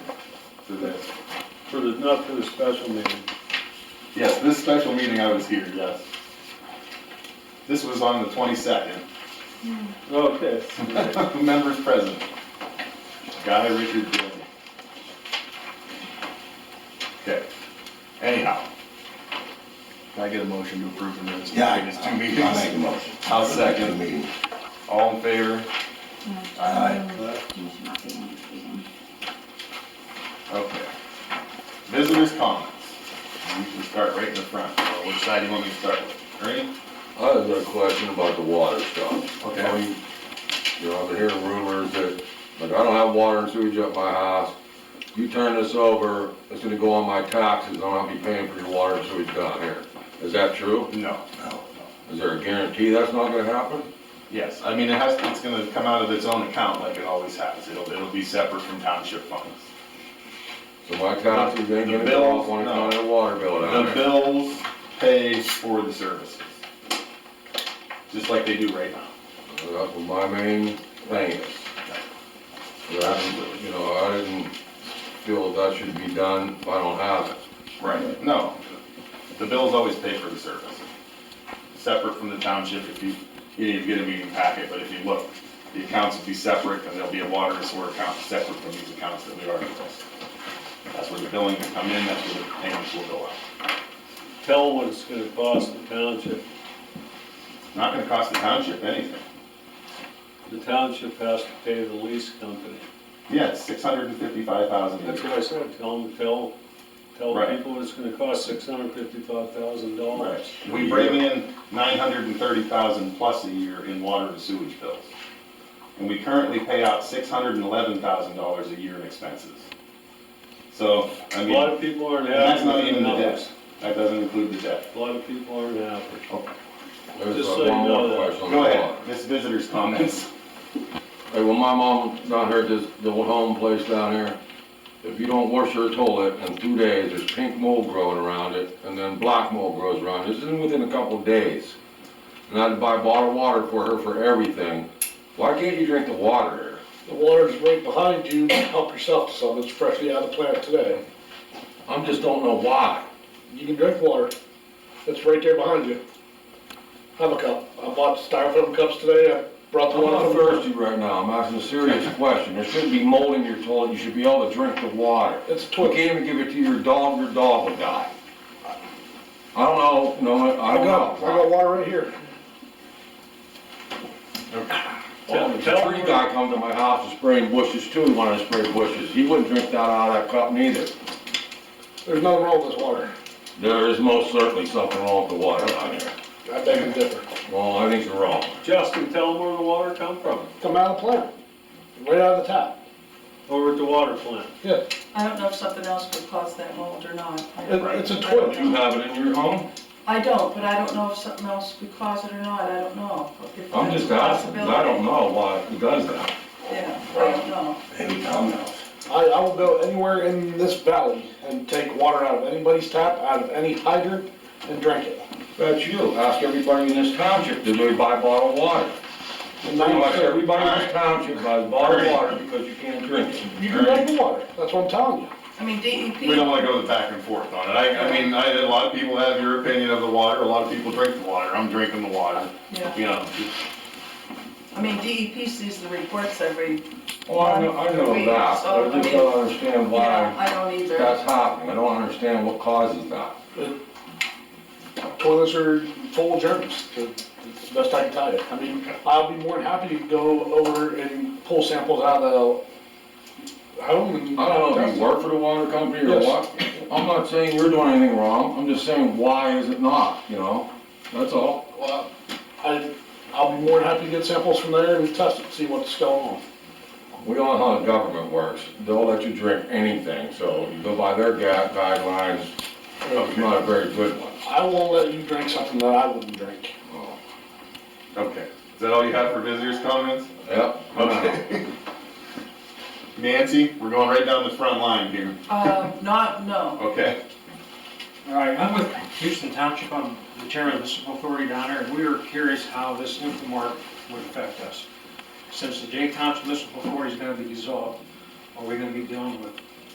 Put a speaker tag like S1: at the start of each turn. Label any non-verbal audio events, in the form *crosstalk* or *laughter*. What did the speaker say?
S1: for this.
S2: For the, not for the special meeting.
S1: Yes, this special meeting I was here, yes. This was on the twenty-second, *laughs*
S2: Okay.
S1: members present. Guy Richard Denny. Okay, anyhow. Can I get a motion to approve the minutes?
S3: Yeah, I-
S1: It's two
S3: I'll make a
S1: meetings.
S3: motion.
S1: I'll second.
S3: The meeting.
S1: All in favor?
S3: Aye.
S4: You should not be in this meeting.
S1: Okay. Visitors' comments. We can start right in the front. Uh, Which side do you want me to start with? Ernie?
S5: I have a question about the water stuff.
S1: Okay.
S5: I mean, You know, I've been hearing rumors that, like, I don't have water and sewage at my house. You turn this over, it's gonna go on my taxes, and I'll be paying for your water and sewage down here. Is that true?
S1: No.
S5: Is there a guarantee that's not gonna happen?
S1: Yes, I mean, it has, it's gonna come out of its own account like it always has. It'll, it'll be separate from township funds.
S5: So my taxes ain't
S1: The
S5: gonna
S1: bills,
S5: go off on
S1: no.
S5: account of the water bill down
S1: The
S5: there?
S1: bills pay for the services. Just like they do right now.
S5: So That's what my main thing is. But I didn't- You know, I didn't feel that should be done if I don't have it.
S1: Right. No, the bills always pay for the service. Separate from the township, if you, you need to get a meeting packet, but if you look, the accounts will be separate, and there'll be a water and sewer account separate from these accounts that we already listed. That's where the billing will come in, that's where the payments will go out.
S2: Tell what it's gonna cost the township.
S1: Not gonna cost the township anything.
S2: The township has to pay the lease company.
S1: Yeah, it's six hundred and fifty-five thousand a
S2: That's
S1: year.
S2: what I said, tell them, tell, tell
S1: Right.
S2: people it's gonna cost six hundred fifty-five thousand dollars.
S1: We bring in nine hundred and thirty thousand plus a year in water and sewage bills. And we currently pay out six hundred and eleven thousand dollars a year in expenses. So, I
S2: A
S1: mean.
S2: lot of people aren't
S1: And that's
S2: happy
S1: not
S2: with the
S1: even the
S2: numbers.
S1: debt, that doesn't include the debt.
S2: A lot of people aren't happy.
S5: There's
S2: Just
S5: uh,
S2: so you
S5: one
S2: know
S5: more
S2: that-
S5: question on the
S1: Go
S5: water.
S1: ahead, this visitor's comments.
S5: Hey, when my mom down here at this, the old home place down here, if you don't wash her toilet in two days, there's pink mold growing around it, and then black mold grows around it. This is within a couple of days. And I had to buy bottled water for her for everything. Why can't you drink the water
S6: The water's right behind you, help yourself to some, it's freshly out of the plant today.
S5: here? I just don't know why.
S6: You can drink water, it's right there behind you. Have a cup, I bought styrofoam cups today, I brought the
S5: I'm
S6: one
S5: not
S6: from first.
S5: thirsty right now, I'm asking a
S6: *laughs*
S5: serious question. There shouldn't be mold in your toilet, you should be able to drink the water.
S6: It's a
S5: You
S6: twig.
S5: can't even give it to your dog, your dog will die. I don't know, no, I
S6: I
S5: don't know.
S6: got, I got water right here.
S5: Well, the
S2: Tell- tell
S5: tree
S2: her-
S5: guy come to my house and spraying bushes too, he wanted to spray bushes, he wouldn't drink that out of that cup neither.
S6: There's nothing wrong with this water,
S5: There is most certainly something wrong with the water down here.
S6: I beg you to differ.
S5: Well, I think you're wrong.
S2: Justin, tell them where the water come from,
S6: Come out of the plant, right out of the tap,
S2: over at the water plant.
S6: yeah,
S7: I don't know if something else would cause that mold or not. I
S6: it,
S7: don't-
S6: it's a
S7: I don't
S6: twig.
S5: You
S7: know.
S5: have it in your home?
S7: I don't, but I don't know if something else would cause it or not, I don't know. If
S5: I'm
S7: that's
S5: just
S7: a
S5: asking, 'cause I don't
S7: possibility.
S5: know why he does that.
S7: Yeah, I don't know.
S3: Any comments?
S6: I, I will go anywhere in this valley and take water out of anybody's tap, out of any hydrant, and drink it.
S5: That's you, ask everybody in this township, do they buy bottled water? Pretty
S6: And now
S5: much
S6: you say,
S5: everybody in this township buys bottled water because you can't drink it.
S6: You can drink the water, that's what I'm telling you.
S7: I mean,
S1: *laughs*
S7: E
S1: We don't
S7: DEP,
S1: wanna go the back and forth on it. I, I mean, I, a lot of people have your opinion of the water, a lot of people drink the water, I'm drinking the water,
S7: yeah,
S1: you know.
S7: I mean, DEP sees the reports every,
S5: Well, Oh, I know, I know
S7: We-
S5: that,
S7: so,
S5: but I just
S7: I mean-
S5: don't understand
S7: yeah,
S5: why
S7: I don't
S5: that's
S7: either.
S5: happening, I don't understand what causes that.
S6: Toilets are full of germs, that's the best I can tell you. I mean, I'll be more than happy to go over and pull samples out of the home and.
S5: I don't know if you work for the water company or
S6: Yes.
S5: what. I'm not saying you're doing anything wrong, I'm just saying, why is it not, you know? That's all.
S6: Well, I, I'll be more than happy to get samples from there and test it, see what's going on.
S5: We all know how the government works. They'll let you drink anything, so you go by their ga- guidelines, it's not a very good one.
S6: I won't let you drink something that I wouldn't drink.
S5: Oh,
S1: Okay, is that all you have for visitors' comments?
S5: Yep.
S1: Okay. *laughs* Nancy, we're going right down the front line here,
S7: Uh, not, no,
S1: okay?
S8: All right, I'm with Houston Township, I'm the chairman of the municipal authority down there, and we were curious how this Infomart would affect us. Since the J Township Municipal Authority is gonna be dissolved, are we gonna be dealing with